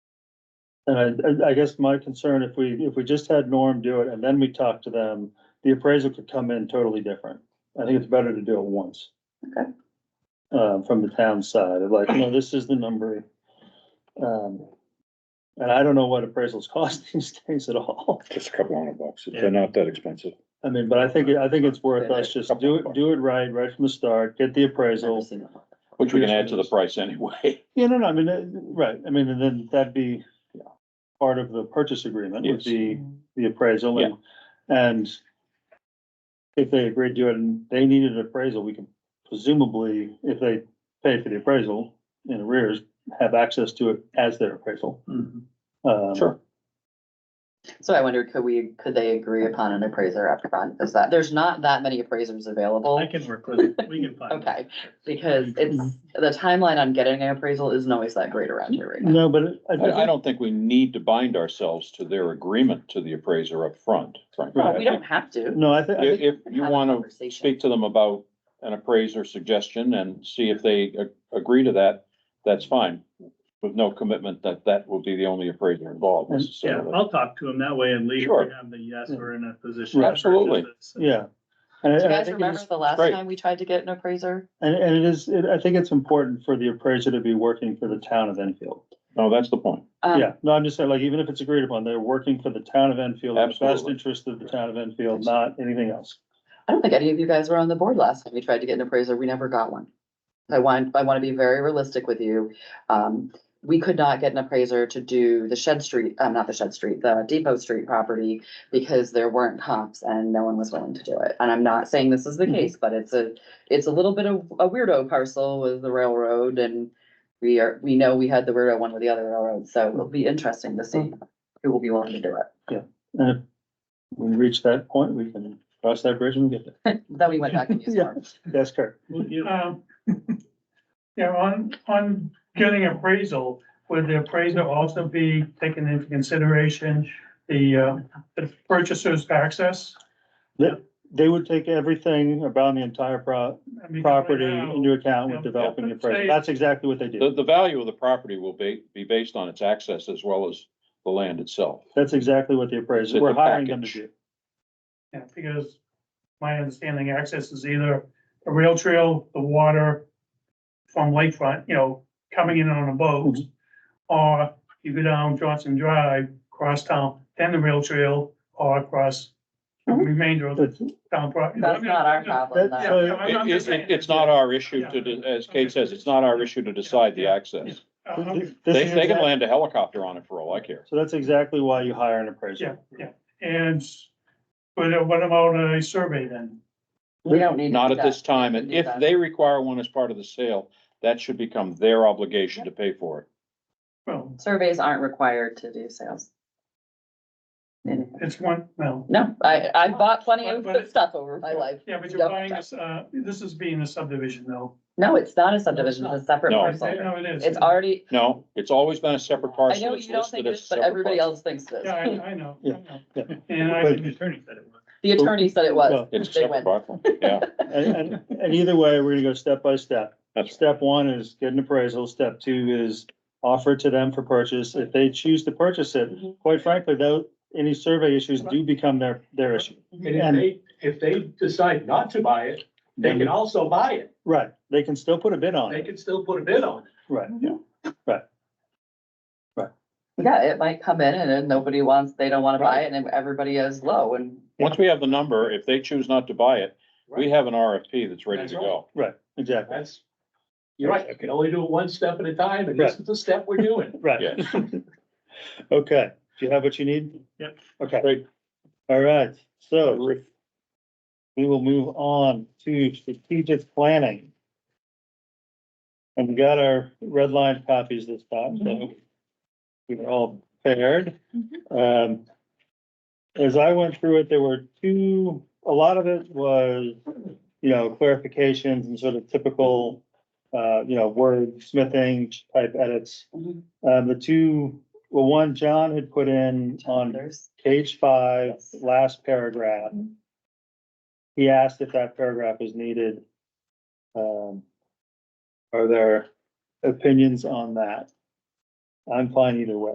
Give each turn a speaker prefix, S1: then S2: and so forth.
S1: And I, I guess my concern, if we, if we just had Norm do it and then we talk to them, the appraisal could come in totally different. I think it's better to do it once.
S2: Okay.
S1: Uh, from the town side, of like, no, this is the number. Um, and I don't know what appraisals cost these days at all.
S3: Just a couple hundred bucks. They're not that expensive.
S1: I mean, but I think, I think it's worth us just do it, do it right, right from the start, get the appraisal.
S3: Which we can add to the price anyway.
S1: Yeah, no, no, I mean, uh, right, I mean, and then that'd be part of the purchase agreement would
S3: Yes.
S1: be
S2: Mm.
S1: the appraisal and, and if they agreed to it and they needed an appraisal, we could presumably, if they pay for the appraisal in arrears, have access to it as their appraisal.
S4: Mm-hmm.
S1: Um,
S3: Sure.
S2: So I wondered, could we, could they agree upon an appraiser up front? Is that, there's not that many appraisers available.
S4: I can work with it, we can find.
S2: Okay, because it's, the timeline on getting an appraisal isn't always that great around here right now.
S1: No, but I-
S3: I, I
S1: I,
S3: don't think we need to bind ourselves to their agreement to the appraiser up front. frankly.
S2: Well, We don't have to.
S1: no, I think, I
S3: If,
S1: think,
S3: if you want to speak to them about an appraiser suggestion and see if they a- agree to that, that's fine. With no commitment that that will be the only appraiser involved
S1: And- yeah,
S4: Yeah,
S3: necessarily.
S4: I'll talk to him that way and leave,
S3: Sure.
S4: we have the yes, we're in a position. to purchase
S3: Absolutely.
S4: this.
S1: yeah. And I-
S2: Do
S1: and
S2: you
S1: I
S2: guys
S1: think it
S2: remember
S1: is-
S2: the last
S3: great.
S2: time we tried to get an appraiser?
S1: And, and it is, it- I think it's important for the appraiser to be working for the town of Enfield.
S3: No, that's the point.
S2: Um,
S1: Yeah, no, I'm just saying, like, even if it's agreed upon, they're working for the town of Enfield, in the best
S3: Absolutely.
S1: interest of the town of Enfield, not anything else.
S2: I don't think any of you guys were on the board last time we tried to get an appraiser. We never got one. I want, I want to be very realistic with you. Um, we could not get an appraiser to do the Shed Street, uh, not the Shed Street, the Depot Street property because there weren't comps and no one was willing to do it. And I'm not saying this is the case, but it's a, it's a little bit of a weirdo parcel with the railroad and we are, we know we had the weirdo one with the other railroad, so it'll be interesting to see who will be willing to do it.
S1: And if we reach that point, we can cross that bridge when we get there.
S2: Then we went back and used
S1: Yeah.
S2: ours.
S1: That's correct.
S4: Well, you-
S5: Uh,
S6: Um, Yeah, on, on getting appraisal, would the appraiser also be taking into consideration the, uh, the purchaser's access?
S1: They would take everything about the entire pro-
S6: I mean,
S1: property
S6: right now,
S1: into account with
S6: yeah,
S1: developing the
S6: but say-
S1: appraisal. That's exactly what they
S3: The,
S1: do.
S3: the value of the property will be, be based on its access as well as the land itself.
S1: That's exactly what the appraisal,
S3: It's
S1: we're
S3: a
S1: hiring them to do.
S3: package.
S6: yeah, Because my understanding, access is either a rail trail, the water from lakefront, you know, coming in on a boat, or you go down Johnson Drive, cross town, then the rail trail, or across the
S2: Mhm.
S6: remainder of the
S1: That's,
S6: town property.
S2: That's not our problem,
S1: That's-
S2: though.
S6: Yeah, yeah, I'm-
S3: It,
S6: I'm just
S3: it-
S6: saying.
S3: it- it's not our issue to, de- as Kate says, it's not our issue to decide the access.
S6: Uh, okay.
S1: this
S3: They,
S1: is
S3: they can
S1: exact-
S3: land a helicopter on it for all I care.
S1: So that's exactly why you hire an appraiser.
S6: Yeah, And, but uh, what about a survey then?
S2: We don't need. to
S3: Not
S2: do
S3: at
S2: that.
S3: this time, and
S2: Need
S3: if
S2: that.
S3: they require one as part of the sale, that should become their obligation to pay for it.
S6: Well,
S2: Surveys aren't required to do sales.
S6: it's one, well,
S2: No, I, I bought plenty of
S6: But- but-
S2: stuff over my life.
S6: yeah, but you're
S2: Double
S6: buying
S2: check.
S6: this, uh, this is being a subdivision though.
S2: No, it's not a subdivision, it's a separate
S3: No.
S2: parcel.
S6: No, it is.
S2: It's already,
S3: No, it's always been a separate
S2: I
S3: parcel.
S2: know
S3: It's
S2: you don't
S3: listed
S2: think it
S3: as
S2: is,
S3: a
S2: but
S3: separate
S2: everybody
S3: parcel.
S2: else thinks it
S6: Yeah,
S2: is.
S6: I, I know, I
S1: Yeah, yeah.
S6: know. And I,
S1: But-
S4: The attorney said it was.
S2: The attorney said it was.
S3: It's a
S2: They
S3: separate
S2: went.
S3: parcel, yeah,
S1: And, and, and either way, we're gonna go step by step.
S3: that's,
S1: Step one is get an appraisal. Step two is offer it to them for purchase. If they choose to purchase it,
S6: Mm-hmm.
S2: Mhm.
S1: quite frankly, though, any survey issues do become their, their issue.
S5: And if
S1: And-
S5: they, if they decide not to buy it, they can also buy it.
S1: Right, they can still put a bid on
S5: They
S1: it,
S5: can still put a bid on it.
S1: right.
S2: Yeah, it might come in and then nobody wants, they don't wanna buy it and then everybody is low and
S3: once we have the number, if they choose not to buy it, we have an RFP that's ready to go.
S1: Right, exactly,
S5: That's, you're right, you can only do it one step at a time, and this is the step we're doing.
S1: right.
S3: Yeah,
S1: Okay, do you have what you need?
S4: Yep.
S1: Okay.
S3: Great.
S1: All right, so we will move on to strategic planning. And we got our red line copies this time, so we were all paired. Um, as I went through it, there were two, a lot of it was, you know, clarifications and sort of typical, uh, you know, word smithing type edits.
S2: Mhm.
S1: Um, the two, well, one John had put in on
S2: there's.
S1: page five, last paragraph. He asked if that paragraph was needed. Um, are there opinions on that? I'm fine either way.